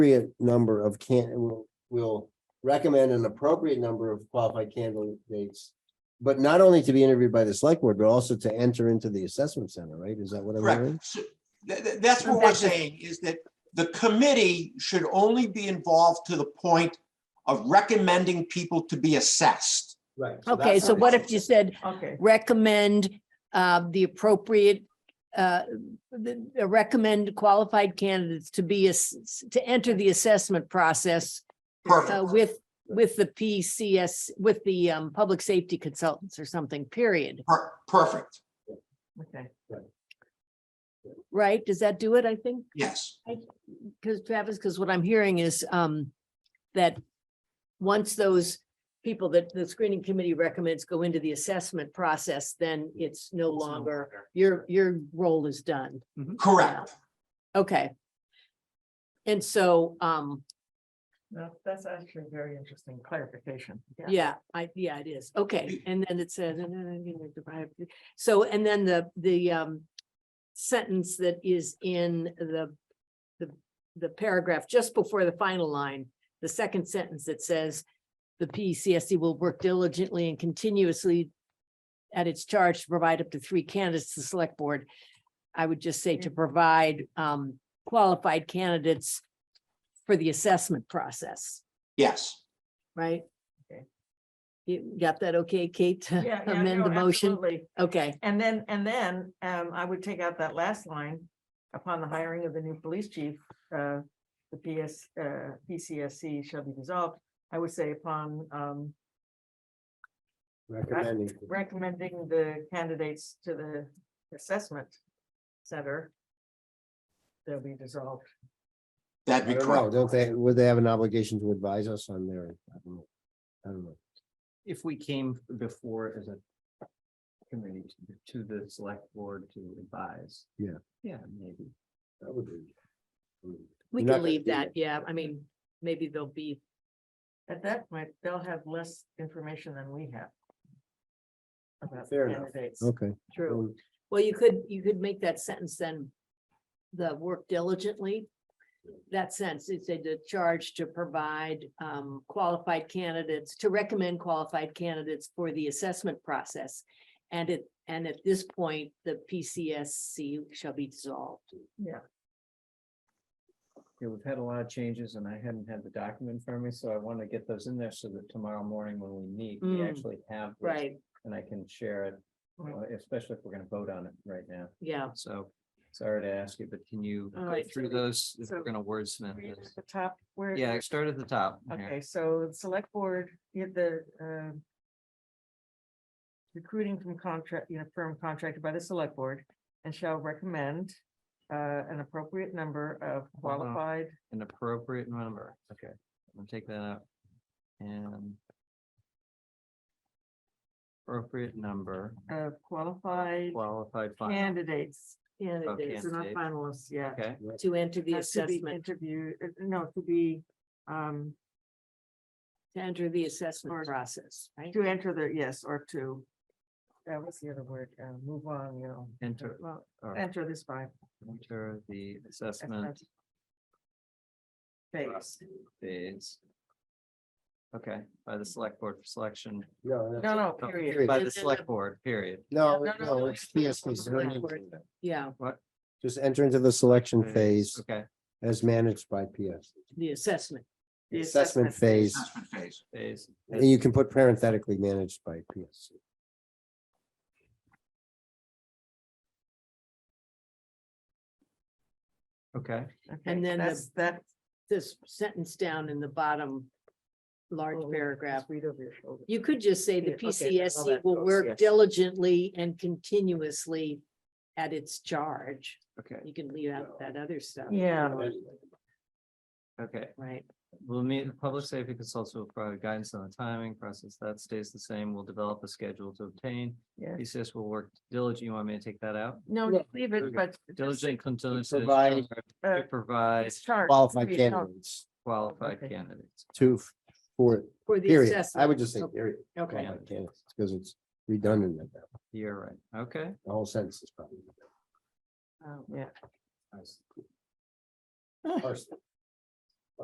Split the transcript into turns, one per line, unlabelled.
appropriate number of can, will, will recommend an appropriate number of qualified candidates. But not only to be interviewed by the select board, but also to enter into the assessment center, right? Is that what I'm hearing?
Correct. So tha- tha- that's what we're
Rebecca.
saying is that the committee should only be involved to the point of recommending people to be assessed.
Right.
Okay, so what if you said
Okay,
recommend uh, the appropriate, uh, the- uh, recommend qualified candidates to be, ass- to enter the assessment process uh,
Perfect.
with, with the PCS, with the um, public safety consultants or something, period,
Per- Perfect.
okay.
right? Does that do it, I think?
Yes.
Because Travis, because what I'm hearing is um, that once those people that the screening committee recommends go into the assessment process, then it's no longer, your, your role is done.
Correct.
Okay. And so, um,
No, that's actually very interesting clarification.
yeah, I, yeah, it is. Okay. And then it says, and then I'm gonna derive- so, and then the, the, um, sentence that is in the, the, the paragraph just before the final line, the second sentence that says, the E PCSD will work diligently and continuously at its charge to provide up to three candidates to the select board. I would just say to provide, um, qualified candidates for the assessment process.
Yes.
right?
Okay.
You got that okay, Kate, to
Yeah, yeah,
amend
no,
the motion?
absolutely.
Okay,
And then, and then, um, I would take out that last line, upon the hiring of the new police chief, uh, the PS, uh, PCSC shall be dissolved. I would say upon, um,
Recommending.
recommending the candidates to the assessment center, they'll be dissolved.
That'd
I
be
don't know,
correct.
don't they, would they have an obligation to advise us on their? I don't know. I don't know.
if we came before as a committee to the select board to advise.
Yeah.
Yeah, maybe.
That would be-
we
You're not
can
gonna
leave
do
that,
that.
yeah, I mean, maybe there'll be,
At that point, they'll have less information than we have. About the
Fair enough.
candidates.
Okay.
true,
um,
well, you could, you could make that sentence then. The work diligently, that sense, it's a the charge to provide um qualified candidates, to recommend qualified candidates for the assessment process. And it, and at this point, the PCSC shall be dissolved.
Yeah, we've had a lot of changes and I hadn't had the document in front of me, so I want to get those in there so that tomorrow morning when we meet, we
Mm.
actually have. this,
Right,
And I can share it, uh, especially if we're going to vote on it right now.
yeah,
So sorry to ask you, but can you
All
go
right,
through
so-
those? If
so-
we're going to wordsmith
Read at
this.
The top where.
Yeah, start at the top. here.
Okay, so the select board, you had the, um. Recruiting from contract, you know, firm contracted by the select board and shall recommend. Uh, an appropriate number of
Hold on.
qualified,
An appropriate number. Okay. I'm gonna take that out. And. Appropriate number
of qualified
qualified. fi-
candidates.
candidates
These are not
Candidate.
finalists yet.
Okay,
to enter the
Has to be
assessment.
interviewed, uh, no, to be, um,
to enter the
Or-
assessment process, right?
to enter the, yes, or to. Uh, what's the other word? Uh, move on, you know.
Enter.
Well,
or
enter this by.
enter the assessment
Phase.
phase. Okay, by the select board for selection,
No,
No, no,
Oh,
period.
period.
by
And
the
then the-
select board, period.
no,
no,
no,
no, no,
no, it's PSPs, they're not
Backward.
doing that.
Yeah,
Just enter into the selection
Phase,
phase
Okay,
as managed by PS.
the assessment.
The
Assessment
assessment
phase,
Assessment phase.
phase.
and you can put parenthetically managed by PS.
Okay,
Okay,
then the-
That's, that.
This sentence down in the bottom large
oh,
paragraph.
just Read over your shoulder.
You could just say the
Yeah, okay, that's how
PCSC
that
will
goes,
work
yes.
diligently and continuously at its charge.
okay,
You can leave out that other stuff.
Yeah.
okay.
Right,
We'll meet, the public safety consultants will provide guidance on the timing process. That stays the same. We'll develop a schedule to obtain.
Yeah.
PCS will work diligently. You want me to take that out?
No,
Yeah.
just leave
Okay.
it, but.
Diligent continuously.
Provide-
uh,
Provide
It's charged.
Qualified
Period. No,
candidates,
qualified
okay.
candidates.
two, four,
for the
period. I
assessment.
would just say period.
Okay,
Qualified candidates, because it's redundant at that.
You're right. Okay.
The whole sentence is probably.
oh, Yeah,
Parse it.